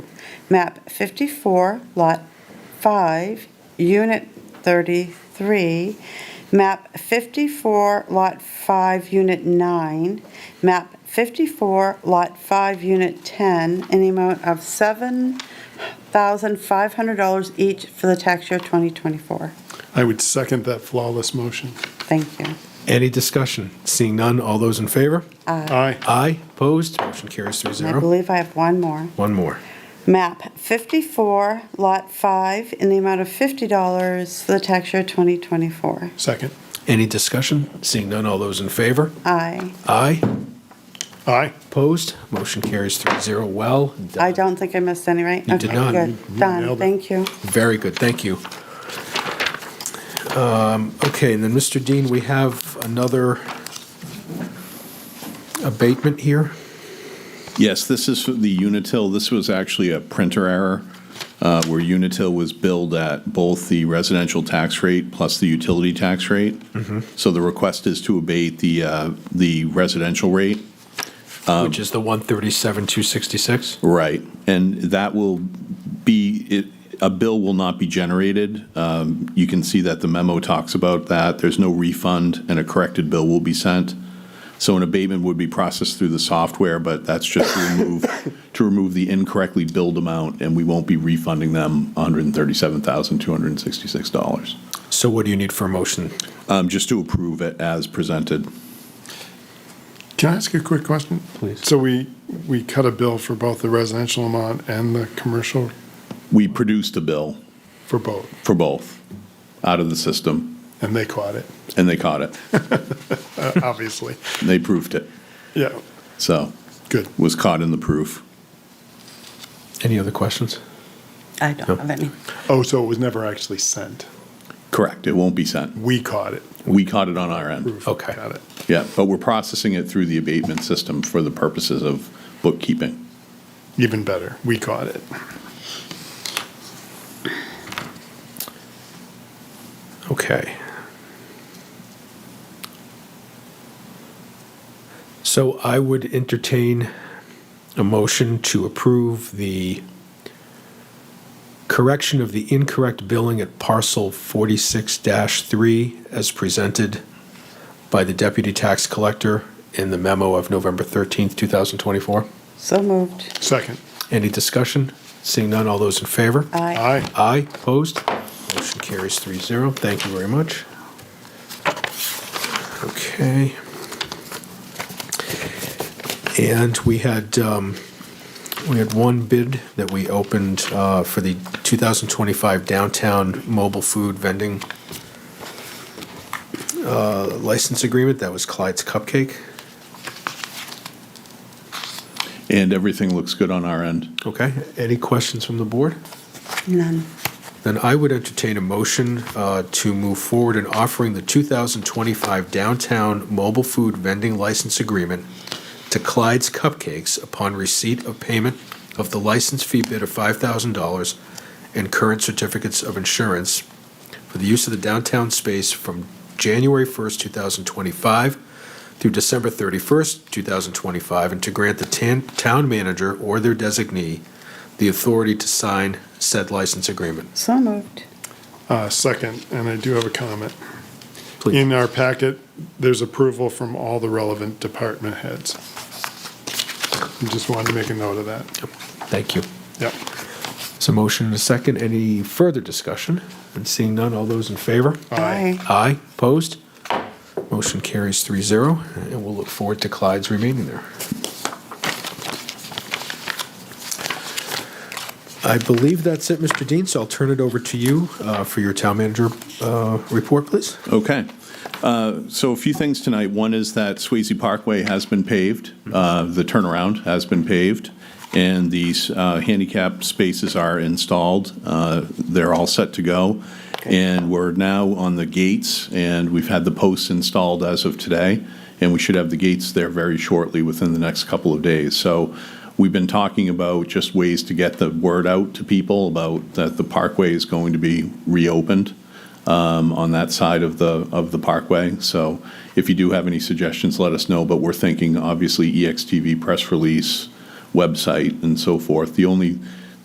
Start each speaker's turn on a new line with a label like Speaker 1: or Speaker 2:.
Speaker 1: map 54, lot 5, unit 33, map 54, lot 5, unit 9, map 54, lot 5, unit 10, in the amount of $7,500 each for the tax year 2024.
Speaker 2: I would second that flawless motion.
Speaker 1: Thank you.
Speaker 3: Any discussion? Seeing none, all those in favor?
Speaker 2: Aye.
Speaker 3: Aye, opposed, motion carries three
Speaker 1: And I
Speaker 3: zero.
Speaker 1: believe I have one more.
Speaker 3: One more.
Speaker 1: Map 54, Lot 5, in the amount of $50 for the tax year 2024.
Speaker 2: Second.
Speaker 3: Any discussion? Seeing none, all those in favor?
Speaker 1: Aye.
Speaker 3: Aye,
Speaker 2: Aye.
Speaker 3: opposed, motion carries three zero. Well done.
Speaker 1: I don't think I missed any, right?
Speaker 3: You did
Speaker 1: Okay,
Speaker 3: not.
Speaker 1: good.
Speaker 2: You
Speaker 1: Done,
Speaker 2: nailed it.
Speaker 1: thank you.
Speaker 3: Very good, thank you. Um, Okay, and then, Mr. Dean, we have another abatement here.
Speaker 4: Yes, this is for the Unitil. This was actually a printer error uh, where Unitil was billed at both the residential tax rate plus the utility tax rate. So the request is to abate the, uh, the residential rate.
Speaker 3: Which is the 137,266?
Speaker 4: Right. And that will be, it- a bill will not be generated. Um, You can see that the memo talks about that. There's no refund, and a corrected bill will be sent. So an abatement would be processed through the software, but that's just to remove, to remove the incorrectly billed amount, and we won't be refunding them $137,266.
Speaker 3: So what do you need for a motion?
Speaker 4: Um, Just to approve it as presented.
Speaker 2: Can I ask a quick question?
Speaker 3: Please.
Speaker 2: So we, we cut a bill for both the residential amount and the commercial
Speaker 4: We produced a bill
Speaker 2: for both,
Speaker 4: for both out of the system,
Speaker 2: and they caught it,
Speaker 4: and they caught it.
Speaker 2: uh, obviously.
Speaker 4: They proved it.
Speaker 2: Yeah,
Speaker 4: So
Speaker 2: good.
Speaker 4: was caught in the proof.
Speaker 3: Any other questions?
Speaker 1: I don't have any.
Speaker 2: Oh, so it was never actually sent.
Speaker 4: Correct. It won't be sent.
Speaker 2: We caught it.
Speaker 4: We caught it on our end.
Speaker 2: Proof.
Speaker 3: Okay.
Speaker 2: Got it.
Speaker 4: Yeah, but we're processing it through the abatement system for the purposes of bookkeeping.
Speaker 2: Even better. We caught it.
Speaker 3: Okay. So I would entertain a motion to approve the correction of the incorrect billing at parcel 46-3 as presented by the deputy tax collector in the memo of November 13th, 2024.
Speaker 1: So moved.
Speaker 2: Second.
Speaker 3: Any discussion? Seeing none, all those in favor?
Speaker 1: Aye.
Speaker 2: Aye.
Speaker 3: Aye, opposed? Motion carries three zero. Thank you very much. Okay. And we had, um, we had one bid that we opened uh, for the 2025 downtown mobile food vending uh, license agreement. That was Clyde's Cupcake.
Speaker 4: And everything looks good on our end.
Speaker 3: Okay, any questions from the board?
Speaker 1: None.
Speaker 3: Then I would entertain a motion uh, to move forward in offering the 2025 Downtown Mobile Food Vending License Agreement to Clyde's Cupcakes upon receipt of payment of the license fee bid of $5,000 and current certificates of insurance for the use of the downtown space from January 1st, 2025 through December 31st, 2025, and to grant the tan- town manager or their designee the authority to sign said license agreement.
Speaker 1: So moved.
Speaker 2: Uh, Second, and I do have a comment.
Speaker 3: Please.
Speaker 2: In our packet, there's approval from all the relevant department heads. I Just wanted to make a note of that.
Speaker 3: Thank you.
Speaker 2: Yep.
Speaker 3: So motion and a second. Any further discussion? And seeing none, all those in favor?
Speaker 2: Aye.
Speaker 3: Aye. Opposed? Motion carries 3-0, and we'll look forward to Clyde's remaining there. I believe that's it, Mr. Dean, so I'll turn it over to you uh, for your town manager uh, report, please.
Speaker 4: Okay. Uh, So a few things tonight. One is that Swayze Parkway has been paved, uh, the turnaround has been paved, and these uh, handicap spaces are installed. Uh, They're all set to go. And we're now on the gates, and we've had the posts installed as of today, and we should have the gates there very shortly, within the next couple of days. So we've been talking about just ways to get the word out to people about that the parkway is going to be reopened um, on that side of the, of the parkway. So if you do have any suggestions, let us know, but E we're thinking, obviously, EXTV press release, website, and so forth. The only